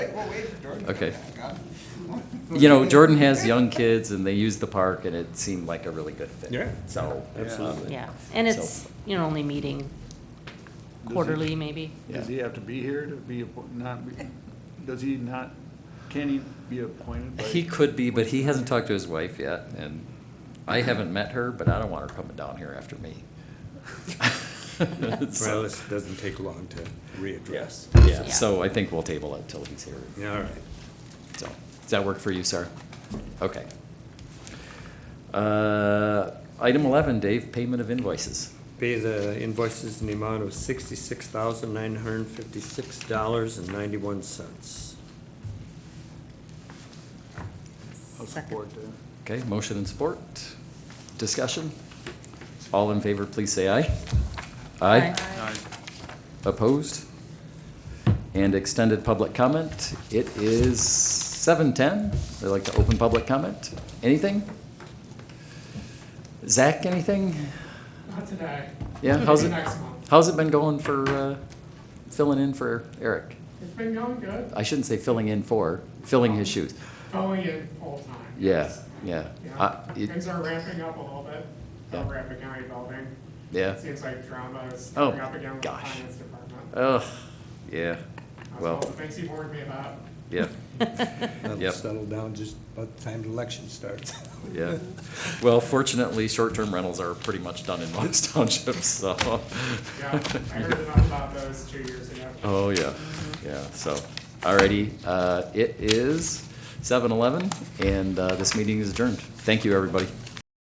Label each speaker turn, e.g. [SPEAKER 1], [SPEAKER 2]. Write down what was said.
[SPEAKER 1] Okay. You know, Jordan has young kids and they use the park and it seemed like a really good fit.
[SPEAKER 2] Yeah.
[SPEAKER 1] So.
[SPEAKER 2] Absolutely.
[SPEAKER 3] Yeah, and it's, you know, only meeting quarterly, maybe.
[SPEAKER 4] Does he have to be here to be, appo- not, be- does he not, can he be appointed by?
[SPEAKER 1] He could be, but he hasn't talked to his wife yet and I haven't met her, but I don't want her coming down here after me.
[SPEAKER 2] Well,
[SPEAKER 1] So,
[SPEAKER 2] this doesn't take long to readdress.
[SPEAKER 1] Yeah, so I think we'll table it till he's here.
[SPEAKER 2] Yeah, All right.
[SPEAKER 1] So, does that work for you, sir? Okay. Uh, Item 11, Dave, payment of invoices.
[SPEAKER 2] Pay the invoices in the amount of sixty-six thousand, nine hundred and fifty-six dollars and ninety-one cents.
[SPEAKER 4] I'll support that.
[SPEAKER 1] Okay, motion and support. Discussion? All in favor, please say aye. Aye. Opposed? And extended public comment. It is 7:10. I'd like to open public comment. Anything? Zach, anything?
[SPEAKER 5] Not today.
[SPEAKER 1] Yeah, how's it,
[SPEAKER 5] Maybe Next month.
[SPEAKER 1] how's it been going for, uh, filling in for Eric?
[SPEAKER 5] It's been going good,
[SPEAKER 1] I shouldn't say filling in for, filling his shoes.
[SPEAKER 5] going in full time.
[SPEAKER 1] Yeah, yeah.
[SPEAKER 5] Yeah,
[SPEAKER 1] Uh, it-
[SPEAKER 5] things are ramping up a little bit,
[SPEAKER 1] Yeah.
[SPEAKER 5] the Rapid County building.
[SPEAKER 1] Yeah.
[SPEAKER 5] Seems like drama is
[SPEAKER 1] Oh,
[SPEAKER 5] coming up again with the
[SPEAKER 1] gosh.
[SPEAKER 5] finance department.
[SPEAKER 1] Ugh, yeah,
[SPEAKER 5] That's all
[SPEAKER 1] well,
[SPEAKER 5] the things he warned me about.
[SPEAKER 1] yeah,
[SPEAKER 6] That'll
[SPEAKER 1] Yep.
[SPEAKER 6] settle down just about the time the election starts.
[SPEAKER 1] yeah. Well, fortunately, short-term rentals are pretty much done in most townships, so.
[SPEAKER 5] Yeah, I heard enough about those two years ago.
[SPEAKER 1] Oh, yeah, yeah, so, alrighty, uh, it is seven eleven, and, uh, this meeting is adjourned. Thank you, everybody.